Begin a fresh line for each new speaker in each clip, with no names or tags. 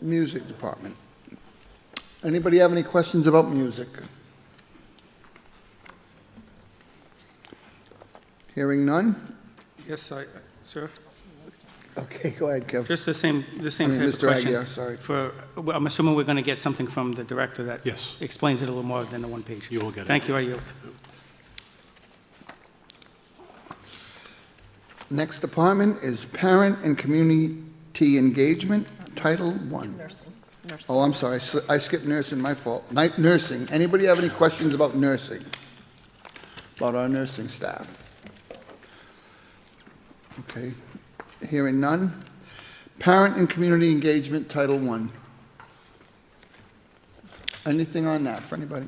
music department. Anybody have any questions about music? Hearing none?
Yes, I, sir,
Okay, go ahead, Kev.
just the same, the same
I mean,
type of
Mr.
question.
Aguirre, sorry.
For, well, I'm assuming we're going to get something from the director that
Yes.
explains it a little more than the one page.
You will get it.
Thank you, I yield.
Next department is parent and community engagement, Title One.
Nursing, nursing.
Oh, I'm sorry, s- I skipped nursing, my fault. Night nursing, anybody have any questions about nursing? About our nursing staff? Okay, hearing none. Parent and community engagement, Title One. Anything on that for anybody?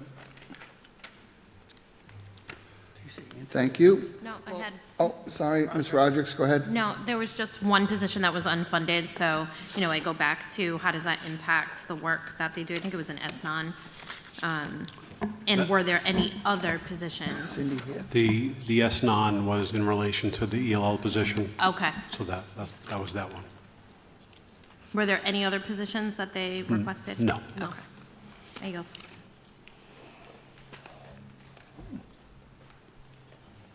Thank you.
No, I had,
Oh, sorry, Ms. Rogers, go ahead.
no, there was just one position that was unfunded, so, you know, I go back to how does that impact the work that they do? I think it was an SNON. Um, And were there any other positions?
The, the S-non was in relation to the ELL position,
Okay.
so that, that's- that was that one.
Were there any other positions that they requested?
no.
Okay. I yield.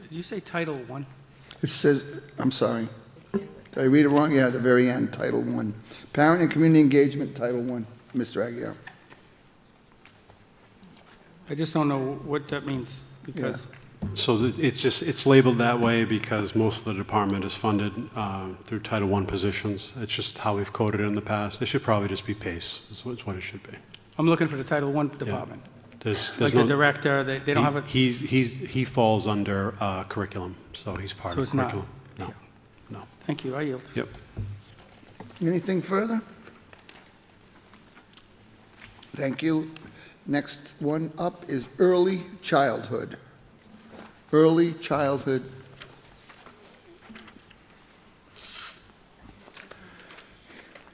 Did you say Title One?
It says, I'm sorry. Did I read it wrong? Yeah, at the very end, Title One. Parent and Community Engagement, Title One, Mr. Aguirre.
I just don't know what that means, because
So th- it's just, it's labeled that way because most of the department is funded uh, through Title I positions. It's just how we've coded it in the past. It should probably just be PACE, is what is what it should be.
I'm looking for the Title One department.
There's,
Like
there's
the
no.
director, they, they don't have a,
He, he's- he's- he falls under uh, curriculum, so he's part
So
of
it's not-
curriculum. No, no.
thank you, I yield.
Yep.
Anything further? Thank you. Next one up is early childhood. Early childhood.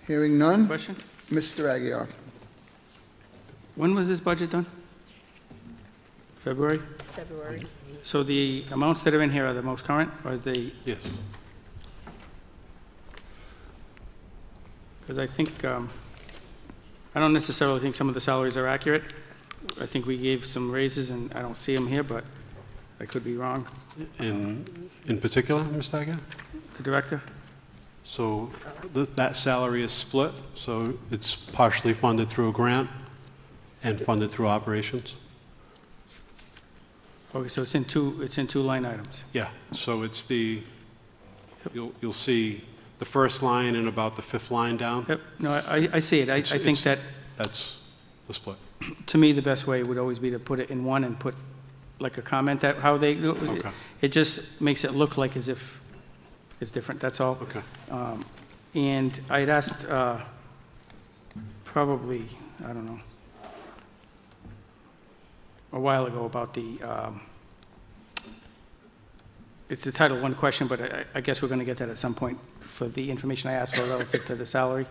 Hearing none,
Question?
Mr. Aguirre.
When was this budget done? February?
February.
So the amounts that are in here are the most current, or is they,
Yes.
Because I think, um, I don't necessarily think some of the salaries are accurate. I think we gave some raises, and I don't see them here, but I could be wrong.
In, in particular, Ms. Agia?
The director?
So th- that salary is split, so it's partially funded through a grant and funded through operations?
Okay, so it's in two, it's in two line items.
Yeah, so it's the, you'll, you'll see the first line and about the fifth line down,
Yep, no, I, I see it. I, I
It's-
think that,
it's- that's the split.
to me, the best way would always be to put it in one and put like a comment that, how they, do it.
Okay.
it just makes it look like as if it's different, that's all.
Okay.
Um, And I had asked, uh, probably, I don't know, a while ago about the, um, it's the Title I question, but I- I guess we're going to get that at some point for the information I asked for relative to the salary.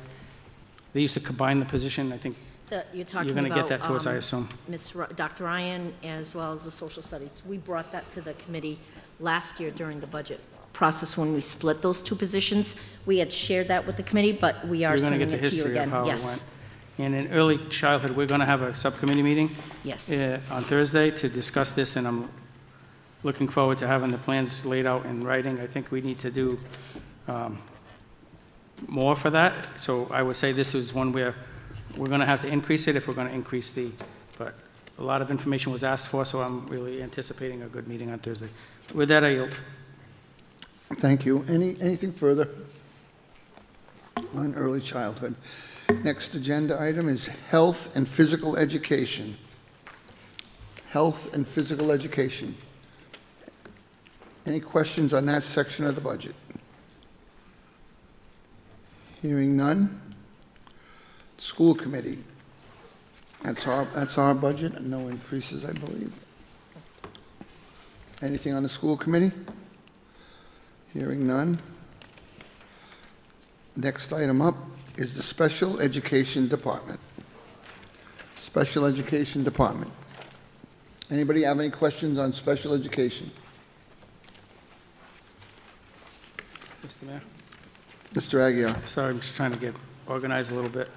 They used to combine the position, I think
That You're
you're
talking
going to get that to us, I
about
assume.
um, Ms., Dr. Ryan, as well as the social studies. We brought that to the committee last year during the budget process when we split those two positions. We had shared that with the committee, but we
You're going
are
to get
sending
the
it to you
history of
again.
how it went.
Yes,
And in early childhood, we're going to have a subcommittee meeting
yes.
uh, on Thursday to discuss this, and I'm looking forward to having the plans laid out in writing. I think we need to do um, more for that, so I would say this is one where we're going to have to increase it if we're going to increase the, but a lot of information was asked for, so I'm really anticipating a good meeting on Thursday. With that, I yield.
Thank you. Any, anything further on early childhood? Next agenda item is health and physical education. Health and physical education. Any questions on that section of the budget? Hearing none. School committee. That's our, that's our budget, and no increases, I believe. Anything on the school committee? Hearing none. Next item up is the Special Education Department. Special Education Department. Anybody have any questions on special education?
Mr. Mayor?
Mr. Aguirre?
Sorry, I'm just trying to get organized a little bit.